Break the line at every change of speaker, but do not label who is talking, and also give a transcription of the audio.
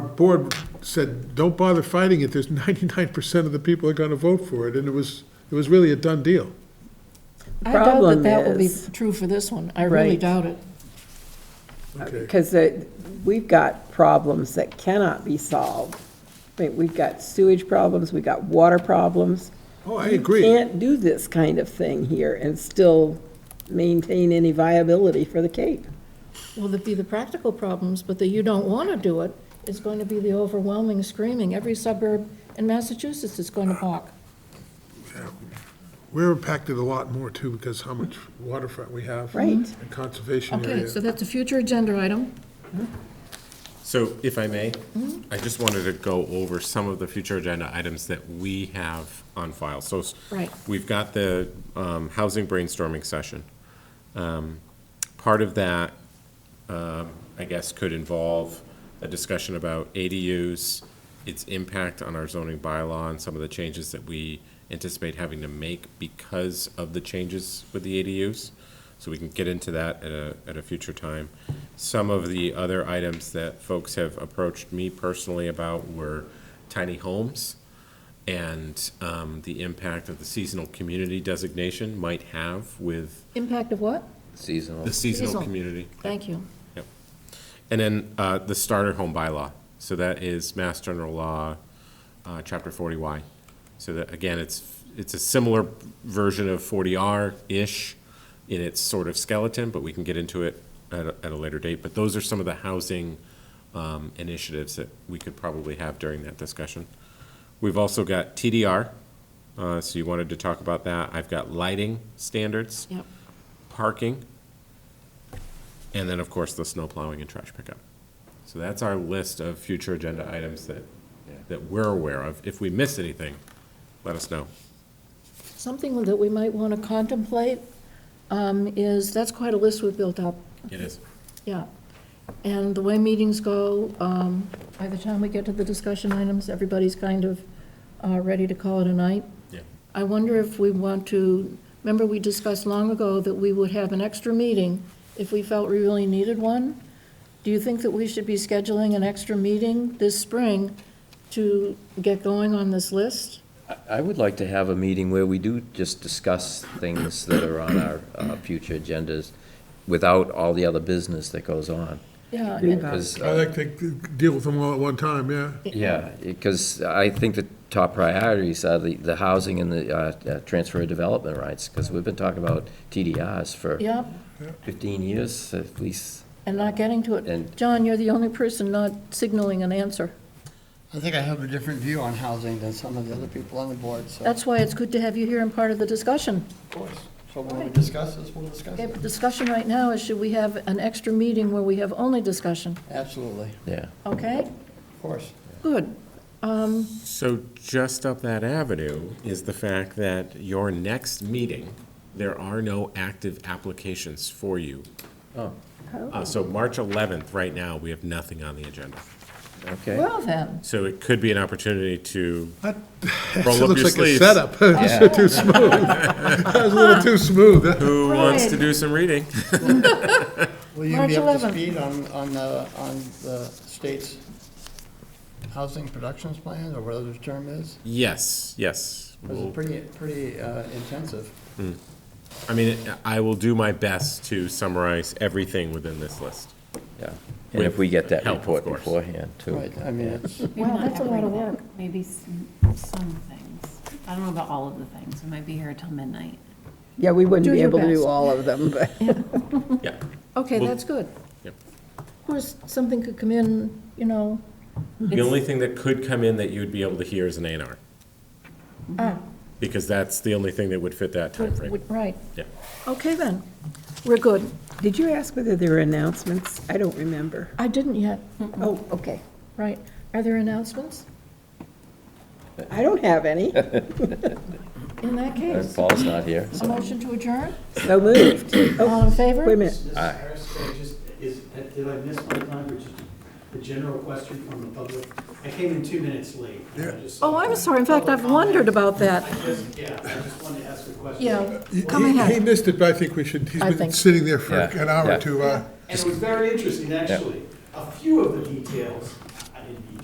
board said, don't bother fighting it, there's ninety-nine percent of the people are gonna vote for it, and it was, it was really a done deal.
I doubt that
problem
that will be
is-
true for this one. I really
Right.
doubt it.
Okay.
Because it- we've got problems that cannot be solved. I mean, we've got sewage problems, we've got water problems.
Oh, I agree.
Can't do this kind of thing here and still maintain any viability for the Cape.
Will there be the practical problems, but that you don't want to do it is going to be the overwhelming screaming. Every suburb in Massachusetts is going to balk.
We're impacted a lot more too, because how much waterfront we have.
Right.
And conservation
Okay,
area.
so that's a future agenda item.
So if I may, I just wanted to go over some of the future agenda items that we have on file. So s-
Right.
we've got the um, housing brainstorming session. Um, Part of that, um, I guess, could involve a discussion about ADUs, its impact on our zoning bylaw, and some of the changes that we anticipate having to make because of the changes with the ADUs. So we can get into that at a, at a future time. Some of the other items that folks have approached me personally about were tiny homes and um, the impact of the seasonal community designation might have with
Impact of what?
Seasonal.
the seasonal
Seasonal.
community.
Thank you.
Yep. And then uh, the starter home bylaw. So that is Mass General Law, uh, Chapter 40Y. So that, again, it's, it's a similar version of 40R-ish in its sort of skeleton, but we can get into it at a, at a later date. But those are some of the housing um, initiatives that we could probably have during that discussion. We've also got TDR, uh, so you wanted to talk about that. I've got lighting standards
Yep.
parking, and then, of course, the snow plowing and trash pickup. So that's our list of future agenda items that, that we're aware of. If we miss anything, let us know.
Something that we might want to contemplate um, is, that's quite a list we've built up,
It is.
yeah. And the way meetings go, um, by the time we get to the discussion items, everybody's kind of uh, ready to call it a night.
Yeah.
I wonder if we want to, remember we discussed long ago that we would have an extra meeting if we felt we really needed one? Do you think that we should be scheduling an extra meeting this spring to get going on this list?
I would like to have a meeting where we do just discuss things that are on our uh, future agendas without all the other business that goes on.
Yeah, I mean,
Because,
I like to deal with them all at one time, yeah.
uh, yeah, because I think the top priorities are the, the housing and the uh, uh, transfer of development rights, because we've been talking about TDRs for
yeah,
15 years at least.
and not getting to it.
And-
John, you're the only person not signaling an answer.
I think I have a different view on housing than some of the other people on the board, so.
That's why it's good to have you here and part of the discussion.
Of course. So when we discuss this, we'll discuss
Okay,
it.
but discussion right now is should we have an extra meeting where we have only discussion,
Absolutely,
Yeah.
okay?
of course.
Good. Um,
So just up that avenue is the fact that your next meeting, there are no active applications for you.
Oh,
Uh, So March 11th, right now, we have nothing on the agenda.
okay.
Well then,
So it could be an opportunity to
That
roll
It
up your
looks like a
sleeves.
setup.
Yeah.
Too smooth. That was a little too smooth.
Who wants to
Right.
do some reading?
Will you be
March
up to
11th.
speed on, on the, on the state's housing productions plan, or whatever the term is?
Yes, yes.
It was
We'll-
pretty, pretty uh, intensive.
I mean, I will do my best to summarize everything within this list.
Yeah. And if we get that
Help, of
report
course.
beforehand, too.
Right, I mean, it's,
Maybe
Wow,
not
that's a lot of
everything, Maybe some, some things. I don't know about all of the things. We might be here till midnight.
Yeah, we
Do
wouldn't be
your
able to
best.
do all of them, but.
Yeah.
okay,
Well-
that's good.
Yep.
Of course, something could come in, you know,
The only thing that could come in that you would be able to hear is an A and R.
ah,
Because that's the only thing that would fit that timeframe.
would- right.
Yeah.
Okay then, we're good.
Did you ask whether there were announcements? I don't remember.
I didn't yet,
Oh, okay.
right. Are there announcements?
I don't have any.
In that
And
case,
Paul's not here,
a
so.
motion to adjourn?
So moved.
All in
Oh,
favor?
Wait a minute.
Mrs. Harris, can I just, is, did I miss my time, or just a general question from the public? I came in two minutes late. and I just-
Oh, I'm sorry, in fact, I've wondered about
I
that.
just, yeah, I just wanted to ask a question.
Yeah,
He-
come
He
ahead.
missed it, but I think we should, he's
I
been
think-
sitting there for
Yeah,
an hour
yeah.
or two. uh,
And it was very interesting, actually. A few of the details